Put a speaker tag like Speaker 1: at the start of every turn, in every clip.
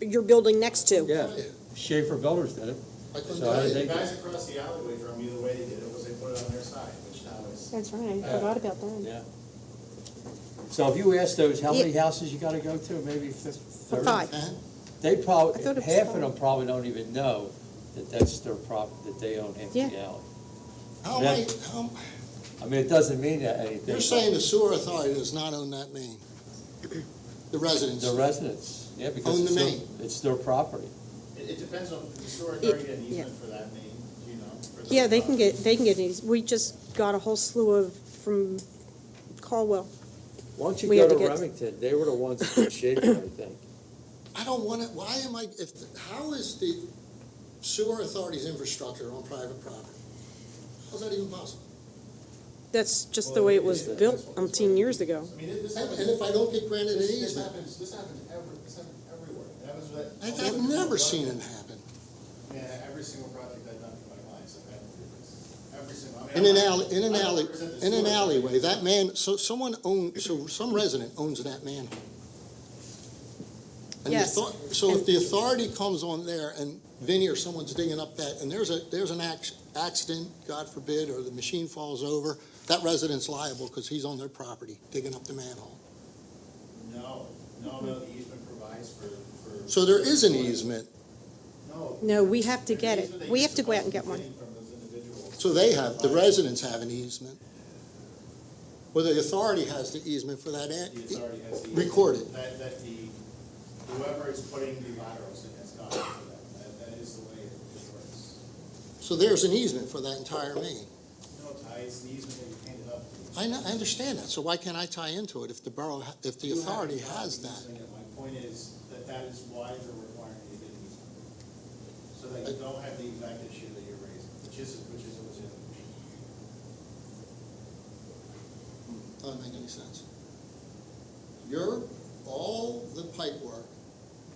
Speaker 1: your building next to.
Speaker 2: Yeah, Schaefer Builders did it.
Speaker 3: I couldn't
Speaker 2: So
Speaker 3: tell
Speaker 2: how
Speaker 3: you.
Speaker 2: did
Speaker 3: The
Speaker 2: they,
Speaker 3: guys across the alleyway from you, the way they did it was they put it on their side, which now is.
Speaker 4: That's right, I
Speaker 2: Yeah.
Speaker 4: forgot about that.
Speaker 2: yeah. So if you ask those, how many
Speaker 1: Yeah.
Speaker 2: houses you gotta go to, maybe fif- thirty?
Speaker 1: Five.
Speaker 2: They
Speaker 1: I
Speaker 2: probably,
Speaker 1: thought it was
Speaker 2: half
Speaker 1: five.
Speaker 2: of them probably don't even know that that's their prop, that they own empty
Speaker 1: Yeah.
Speaker 2: alley.
Speaker 3: How
Speaker 2: many-
Speaker 3: how,
Speaker 2: I mean, it doesn't mean that anything. but
Speaker 3: the sewer authority does not own that main? The residents?
Speaker 2: The residents, yeah, because
Speaker 3: Own the
Speaker 2: it's their,
Speaker 3: main.
Speaker 2: it's their property.
Speaker 3: It, it depends on, the sewer
Speaker 1: It-
Speaker 3: authority had an
Speaker 1: yeah.
Speaker 3: easement for that main, you know? for the-
Speaker 1: Yeah, they can get, they can get these. We just got a whole slew of, from Caldwell.
Speaker 2: Why don't you
Speaker 1: We
Speaker 2: go
Speaker 1: had
Speaker 2: to
Speaker 1: to get-
Speaker 2: Remington? They were the ones that did Schaefer, I think.
Speaker 5: I don't want to, why am I, if, how is the sewer authority's infrastructure on private property? How's that even possible?
Speaker 1: That's just the way it was built umpteen years ago.
Speaker 3: I mean, it- this
Speaker 5: And
Speaker 3: happens,
Speaker 5: and if I don't get granted an
Speaker 3: this, this
Speaker 5: easement,
Speaker 3: happens, this happens every, this happens everywhere. That was what.
Speaker 5: I- I've never seen it happen.
Speaker 3: Yeah, every single project I've done for my clients, I've had to do this. Every single, I mean.
Speaker 5: In an
Speaker 3: I'm not-
Speaker 5: alley, in an
Speaker 3: I don't
Speaker 5: alley,
Speaker 3: represent the
Speaker 5: in an
Speaker 3: sewer authority.
Speaker 5: alleyway, that man, so someone own, so some resident owns that manhole. And the
Speaker 1: Yes.
Speaker 5: author- So
Speaker 1: And-
Speaker 5: if the authority comes on there and Vinnie or someone's digging up that, and there's a, there's an ac- accident, God forbid, or the machine falls over, that resident's liable because he's on their property digging up the manhole.
Speaker 3: No, no, no, the easement provides for, for.
Speaker 5: So there is an easement,
Speaker 3: No.
Speaker 1: No, we have to get
Speaker 3: Easement
Speaker 1: it.
Speaker 3: that
Speaker 1: We
Speaker 3: you're
Speaker 1: have to go out and get
Speaker 3: supposed to
Speaker 1: one.
Speaker 3: be getting from those individuals.
Speaker 5: so they have, the residents have an easement. Well, the authority has the easement for that, eh,
Speaker 3: The
Speaker 5: an-
Speaker 3: authority has the.
Speaker 5: recorded.
Speaker 3: E. That, that the, whoever is putting the laterals in has gone for that, that, that is the way it it works.
Speaker 5: so there's an easement for that entire main.
Speaker 3: No, Ty, it's the easement that you handed up.
Speaker 5: I know, I understand that, so why can't I tie into it if the borough, ha- if the
Speaker 3: You have
Speaker 5: authority
Speaker 3: the property
Speaker 5: has that?
Speaker 3: easement, and My point is that that is why they're requiring you to get an easement. So that you don't have the exact issue that you're raising, which is, which is a legitimate issue.
Speaker 5: Doesn't make any sense. Your, all the pipe work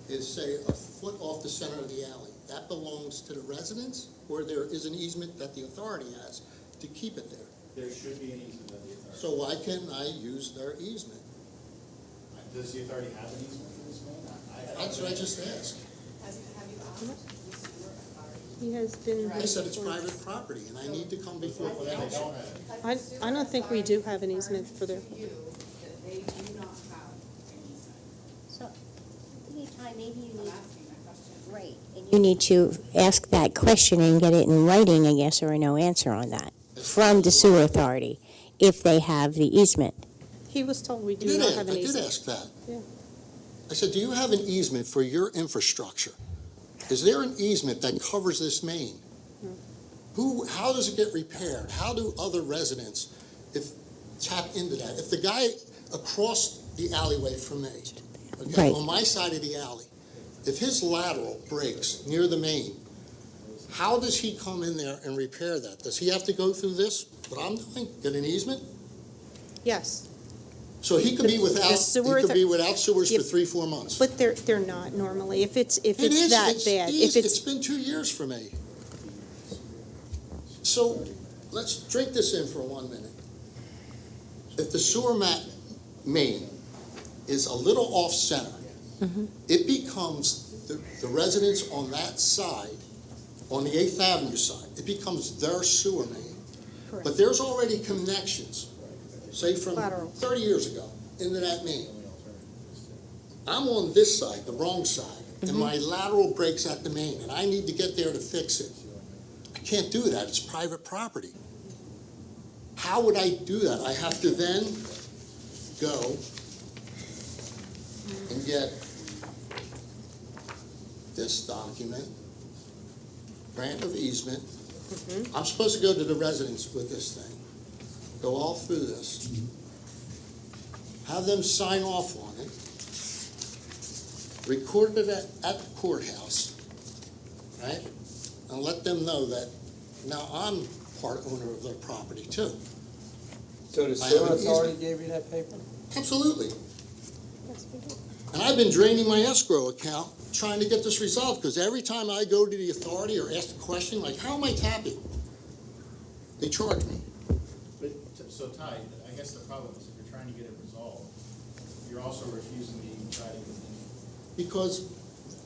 Speaker 5: is, say, a foot off the center of the alley. That belongs to the residents, or there is an easement that the authority has to keep it there.
Speaker 3: There should be an easement that the authority.
Speaker 5: So why can't I use their easement?
Speaker 3: Does the authority have an easement for this man?
Speaker 5: That's what I just asked.
Speaker 6: Have you, have you asked the sewer authority?
Speaker 1: He has been.
Speaker 5: They said it's private property, and I need to come before
Speaker 3: Well, then they
Speaker 5: council.
Speaker 3: don't have it.
Speaker 1: I-
Speaker 6: Has the
Speaker 1: I don't
Speaker 6: sewer
Speaker 1: think we do
Speaker 6: authority
Speaker 1: have an easement for their-
Speaker 6: confirmed to you that they do not have an easement?
Speaker 7: So, anytime, maybe you
Speaker 6: I'm
Speaker 7: need,
Speaker 6: asking that question.
Speaker 7: right, and you need to ask that question and get it in writing, a yes or a no answer on that, from the sewer authority, if they have the easement.
Speaker 1: He was told we
Speaker 5: I
Speaker 1: do
Speaker 5: did,
Speaker 1: not
Speaker 5: ask-
Speaker 1: have
Speaker 5: I
Speaker 1: an
Speaker 5: did
Speaker 1: easement.
Speaker 5: ask that.
Speaker 1: Yeah.
Speaker 5: I said, do you have an easement for your infrastructure? Is there an easement that covers this main?
Speaker 1: Hmm.
Speaker 5: Who, how does it get repaired? How do other residents if, tap into that? If the guy across the alleyway from me, okay,
Speaker 7: Right.
Speaker 5: on my side of the alley, if his lateral breaks near the main, how does he come in there and repair that? Does he have to go through this, what I'm doing, get an easement?
Speaker 1: Yes,
Speaker 5: So he could be
Speaker 1: The- the
Speaker 5: without, he
Speaker 1: sewer
Speaker 5: could
Speaker 1: author-
Speaker 5: be without sewers for
Speaker 1: Yep.
Speaker 5: three, four months.
Speaker 1: but they're, they're not normally. If it's, if
Speaker 5: It
Speaker 1: it's
Speaker 5: is,
Speaker 1: that bad, if
Speaker 5: easy.
Speaker 1: it's,
Speaker 5: It's been two years for me. So, let's drink this in for one minute. If the sewer ma- main is a little off-center,
Speaker 1: Mm-hmm.
Speaker 5: it becomes the, the residents on that side, on the Eighth Avenue side, it becomes their sewer main. But
Speaker 1: correct.
Speaker 5: there's already connections, say from
Speaker 1: Lateral.
Speaker 5: thirty years ago, into that main. I'm on this side, the wrong side, and my lateral breaks at the main, and I need to get there to fix it. I can't do that, it's private property. How would I do that? I have to then go and get this document, grant of easement. I'm supposed to go to the residents with this thing, go all through this, have them sign off on it, record it at, at the courthouse, right? And let them know that now I'm part owner of their property too.
Speaker 2: So the
Speaker 5: I have
Speaker 2: sewer
Speaker 5: an
Speaker 2: authority gave you that paper?
Speaker 5: Absolutely.
Speaker 1: Yes, we do.
Speaker 5: And I've been draining my escrow account trying to get this resolved, because every time I go to the authority or ask a question, like, how am I tapping? They charge me.
Speaker 3: But, t- so Ty, I guess the problem is if you're trying to get it resolved, you're also refusing to even try to. get an easement.
Speaker 5: Because